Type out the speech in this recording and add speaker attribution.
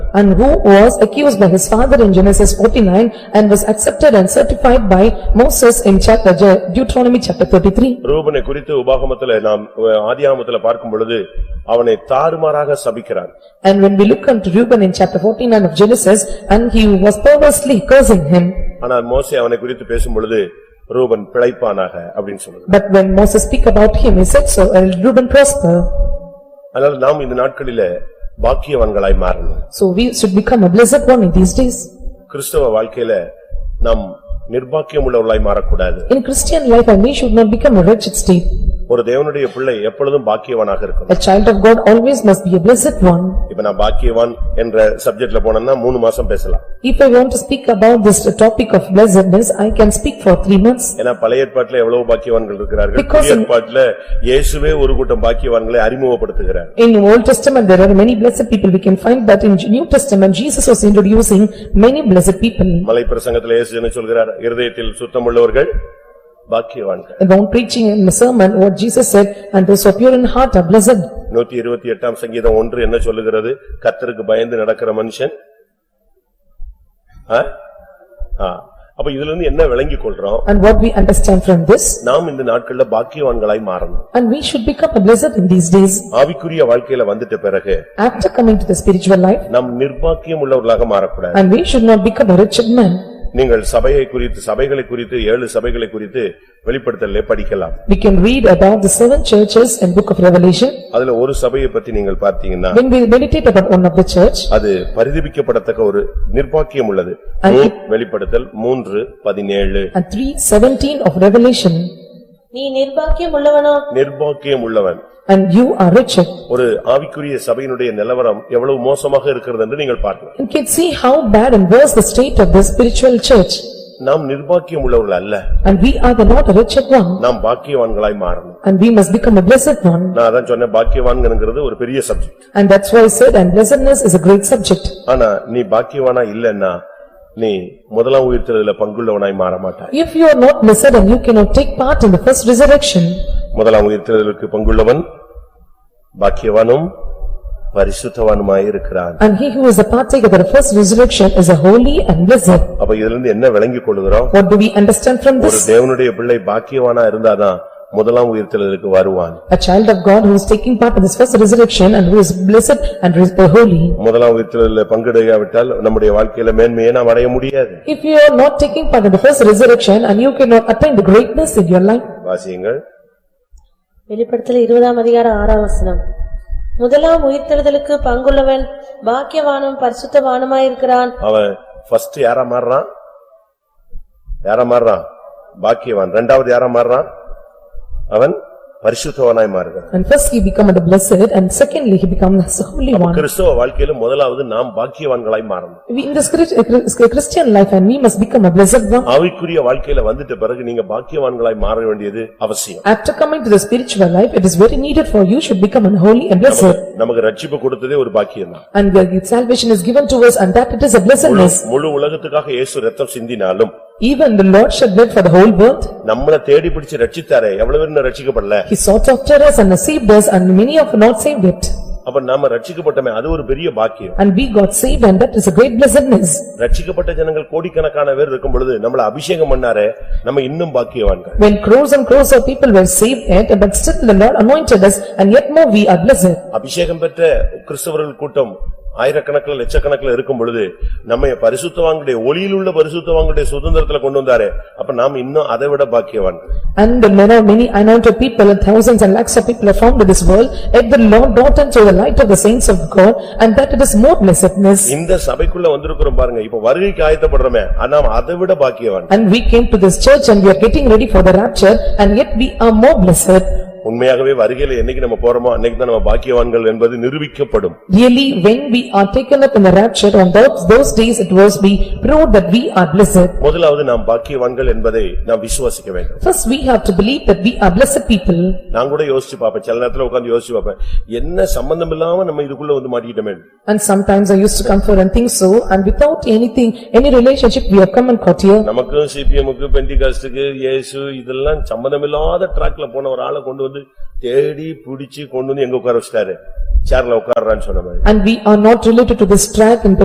Speaker 1: and who was accused by his father in Genesis forty-nine and was accepted and certified by Moses in chapter Deuteronomy chapter thirty-three.
Speaker 2: ரூபனை குறித்து உபாகமத்துல நாம் அஹ், ஆதியாகமத்துல பார்க்கும் பொழுது அவனை தாறுமாறாக சபிக்கிறார்
Speaker 1: And when we look unto Reuben in chapter forty-nine of Genesis, and he was perversely cursing him.
Speaker 2: ஆனால் மோசே அவனை குறித்து பேசும் பொழுது ரூபன் பிழைப்பானாக அப்படின்னு சொல்லுது
Speaker 1: But when Moses speak about him, he said so, and Reuben prosper.
Speaker 2: அதனால நாம் இந்த நாட்களிலே பாக்கியவான்களாய் மாறணும்
Speaker 1: So we should become a blessed one in these days.
Speaker 2: கிறிஸ்தவ வாழ்க்கையில நாம் நிர்பாக்கியம் உள்ளவர்களாய் மாறக்கூடாது
Speaker 1: In Christian life, and we should not become a wretched state.
Speaker 2: ஒரு தேவனுடைய பிள்ளை எப்பொழுதும் பாக்கியவானாக இருக்கணும்
Speaker 1: A child of God always must be a blessed one.
Speaker 2: இப்ப நான் பாக்கியவான் என்ற சப்ஜெக்ட்ல போனேன்னா மூணு மாசம் பேசலாம்
Speaker 1: If I want to speak about this topic of blessedness, I can speak for three months.
Speaker 2: ஏன்னா பழைய ஏற்பாட்டுல எவ்வளவு பாக்கியவான்கள் இருக்கிறார்கள்
Speaker 1: Because
Speaker 2: புதிய
Speaker 1: in-
Speaker 2: ஏற்பாட்டுல இயேசுவே ஒரு கூட்டம் பாக்கியவான்களை அறிமுகப்படுத்துகிறார்
Speaker 1: In Old Testament, there are many blessed people. We can find that in New Testament, Jesus was introducing many blessed people.
Speaker 2: மலை பிரசங்கத்துல இயேசு என்ன சொல்கிறார் இருதயத்தில் சுத்தமுள்ளவர்கள் பாக்கியவான்கள்
Speaker 1: About preaching in the sermon, what Jesus said, "And those of pure in heart are blessed."
Speaker 2: நூத்தி இருபத்தி எட்டாம் சங்கீதம் ஒன்று என்ன சொல்லுகிறது கத்தருக்கு பயந்து நடக்கிற மனுஷன் ஆ? ஆ. அப்ப இதுல இருந்து என்ன விளங்கிக் கொள்றோம்
Speaker 1: And what we understand from this,
Speaker 2: நாம் இந்த நாட்கள்ல பாக்கியவான்களாய் மாறணும்
Speaker 1: and we should become a blessed in these days.
Speaker 2: ஆவிக்குரிய வாழ்க்கையில வந்துட்ட பிறகு
Speaker 1: After coming to the spiritual life,
Speaker 2: நாம் நிர்பாக்கியம் உள்ளவர்களாக மாறக்கூடாது
Speaker 1: and we should not become a wretched man.
Speaker 2: நீங்கள் சபையை குறித்து சபைகளை குறித்து ஏழு சபைகளை குறித்து வெளிப்படுத்தலே படிக்கலாம்
Speaker 1: We can read about the seven churches in book of Revelation.
Speaker 2: அதுல ஒரு சபையை பத்தி நீங்கள் பார்த்தீங்கன்னா
Speaker 1: When we meditate about one of the church,
Speaker 2: அது பரிதபிக்கப்படத்தக்க ஒரு நிர்பாக்கியம் உள்ளது
Speaker 1: அது-
Speaker 2: மூ- வெளிப்படுத்தல் மூன்று பதினேழு
Speaker 1: and three seventeen of Revelation,
Speaker 3: நீ நிர்பாக்கியம் உள்ளவனோ
Speaker 2: நிர்பாக்கியம் உள்ளவன்
Speaker 1: and you are wretched.
Speaker 2: ஒரு ஆவிக்குரிய சபையினுடைய நிலவரம் எவ்வளவு மோசமாக இருக்கிறது என்று நீங்கள் பார்க்கலாம்
Speaker 1: You can see how bad and worse the state of the spiritual church,
Speaker 2: நாம் நிர்பாக்கியம் உள்ளவர்கள் அல்ல
Speaker 1: and we are the not a wretched one,
Speaker 2: நாம் பாக்கியவான்களாய் மாறணும்
Speaker 1: and we must become a blessed one.
Speaker 2: நான் அதான் சொன்னேன் பாக்கியவான்கிறது ஒரு பெரிய subject
Speaker 1: And that's why I said, and blessedness is a great subject.
Speaker 2: ஆனா நீ பாக்கியவானா இல்லன்னா நீ முதலாம் உயிர்த்தெழுதல பங்குள்ளவனாய் மாற மாட்டாய்
Speaker 1: If you are not blessed and you cannot take part in the first resurrection,
Speaker 2: முதலாம் உயிர்த்தெழுதலுக்கு பங்குள்ளவன் பாக்கியவானும் பரிசுத்தவானுமாய் இருக்கிறான்
Speaker 1: and he who is a partaker of the first resurrection is a holy and blessed.
Speaker 2: அப்ப இதுல இருந்து என்ன விளங்கிக் கொள்கிறோம்
Speaker 1: What do we understand from
Speaker 2: ஒரு
Speaker 1: this?
Speaker 2: தேவனுடைய பிள்ளை பாக்கியவானா இருந்தாதான் முதலாம் உயிர்த்தெழுதலுக்கு வருவான்
Speaker 1: A child of God who is taking part in this first resurrection and who is blessed and is holy.
Speaker 2: முதலாம் உயிர்த்தெழுதல பங்கெடுக்காவிட்டால் நம்முடைய வாழ்க்கையில மேன்மையை நாம் அடைய முடியாது
Speaker 1: If you are not taking part in the first resurrection and you cannot attain the greatness in your life,
Speaker 2: வாசியங்கள்
Speaker 3: வெளிப்படுத்தல் இருபதாம் அதிகாரம் ஆறாம் வசனம் முதலாம் உயிர்த்தெழுதலுக்கு பங்குள்ளவன் பாக்கியவானும் பரிசுத்தவானுமாயிருக்கிறான்
Speaker 2: அவன் ஃபர்ஸ்ட் யாரா மாறுறான் யாரா மாறுறான் பாக்கியவான் ரெண்டாவது யாரா மாறுறான் அவன் பரிசுத்தவனாய் மாறுகிறான்
Speaker 1: and first he become the blessed and secondly he becomes the holy one.
Speaker 2: கிறிஸ்தவ வாழ்க்கையில முதலாவது நாம் பாக்கியவான்களாய் மாறணும்
Speaker 1: We in this Chris- uh, Chris- Christian life and we must become a blessed one.
Speaker 2: ஆவிக்குரிய வாழ்க்கையில வந்துட்ட பிறகு நீங்க பாக்கியவான்களாய் மாற வேண்டியது அவசியம்
Speaker 1: After coming to the spiritual life, it is very needed for you should become an holy and blessed.
Speaker 2: நமக்கு ரட்சிப்பு கொடுத்ததே ஒரு பாக்கியம்தான்
Speaker 1: And the salvation is given to us and that it is a blessedness.
Speaker 2: முழு உலகத்துக்காக இயேசு ரத்தம் சிந்தினாலும்
Speaker 1: Even the Lord shed blood for the whole world.
Speaker 2: நம்மள தேடி பிடிச்சு ரட்சித்தாரே எவ்வளவு பேர் இன்னும் ரட்சிக்கப்படல
Speaker 1: He sought after us and saved us and many have not saved it.
Speaker 2: அப்ப நாம ரட்சிக்கப்பட்டமே அது ஒரு பெரிய பாக்கியம்
Speaker 1: And we got saved and that is a great blessedness.
Speaker 2: ரட்சிக்கப்பட்ட ஜனங்கள் கோடிக்கணக்கான பேர் இருக்கும் பொழுது நம்மள அபிஷேகம் பண்ணாரே நம்ம இன்னும் பாக்கியவான்கள்
Speaker 1: When crores and crores of people were saved yet, but still the Lord anointed us and yet more we are blessed.
Speaker 2: அபிஷேகம் பெற்ற கிறிஸ்தவர்கள் கூட்டம் ஆயிரக்கணக்கில் லட்சக்கணக்கில் இருக்கும் பொழுது நம்ம பரிசுத்தவான்களுடைய ஒளியில் உள்ள பரிசுத்தவான்களுடைய சுதந்திரத்துல கொண்டு வந்தாரே அப்ப நாம் இன்னும் அதை விட பாக்கியவான்கள்
Speaker 1: And there are many anointed people and thousands and lakhs of people are found in this world, yet the Lord brought unto the light of the saints of God and that it is more blessedness.
Speaker 2: இந்த சபைக்குள்ள வந்திருக்கிறோம் பாருங்க இப்ப வருகைக்கு ஆயத்தப்படுறோமே ஆனா அதை விட பாக்கியவான்கள்
Speaker 1: And we came to this church and we are getting ready for the rapture and yet we are more blessed.
Speaker 2: உண்மையாகவே வருகையில என்னைக்கு நம்ம போறோமோ அன்னைக்கு தான் நம்ம பாக்கியவான்கள் என்பது நிரூபிக்கப்படும்
Speaker 1: Really, when we are taken up in the rapture on those those days it was be proved that we are blessed.
Speaker 2: முதலாவது நாம் பாக்கியவான்கள் என்பதை நாம் விசுவாசிக்க வேண்டும்
Speaker 1: First, we have to believe that we are blessed people.
Speaker 2: நான் கூட யோசிச்சு பாப்பேன் சில நேரத்துல உட்கார்ந்து யோசிச்சு பாப்பேன் என்ன சம்பந்தம் இல்லாம நம்ம இதுக்குள்ள வந்து மாட்டிக்கிட்டோமே
Speaker 1: And sometimes I used to come for and think so, and without anything, any relationship, we have come and caught here.
Speaker 2: நமக்கும் சிபிஎம்க்கு பெண்டிகாஸ்டுக்கு இயேசு இதெல்லாம் சம்பந்தமில்லாத ட்ராக்ல போன ஒரு ஆளை கொண்டு வந்து தேடி பிடிச்சு கொண்டு வந்து எங்க உட்கார வச்சிட்டாரு சேர்ல உட்கார்றான்னு சொன்ன மாதிரி
Speaker 1: And we are not related to this track in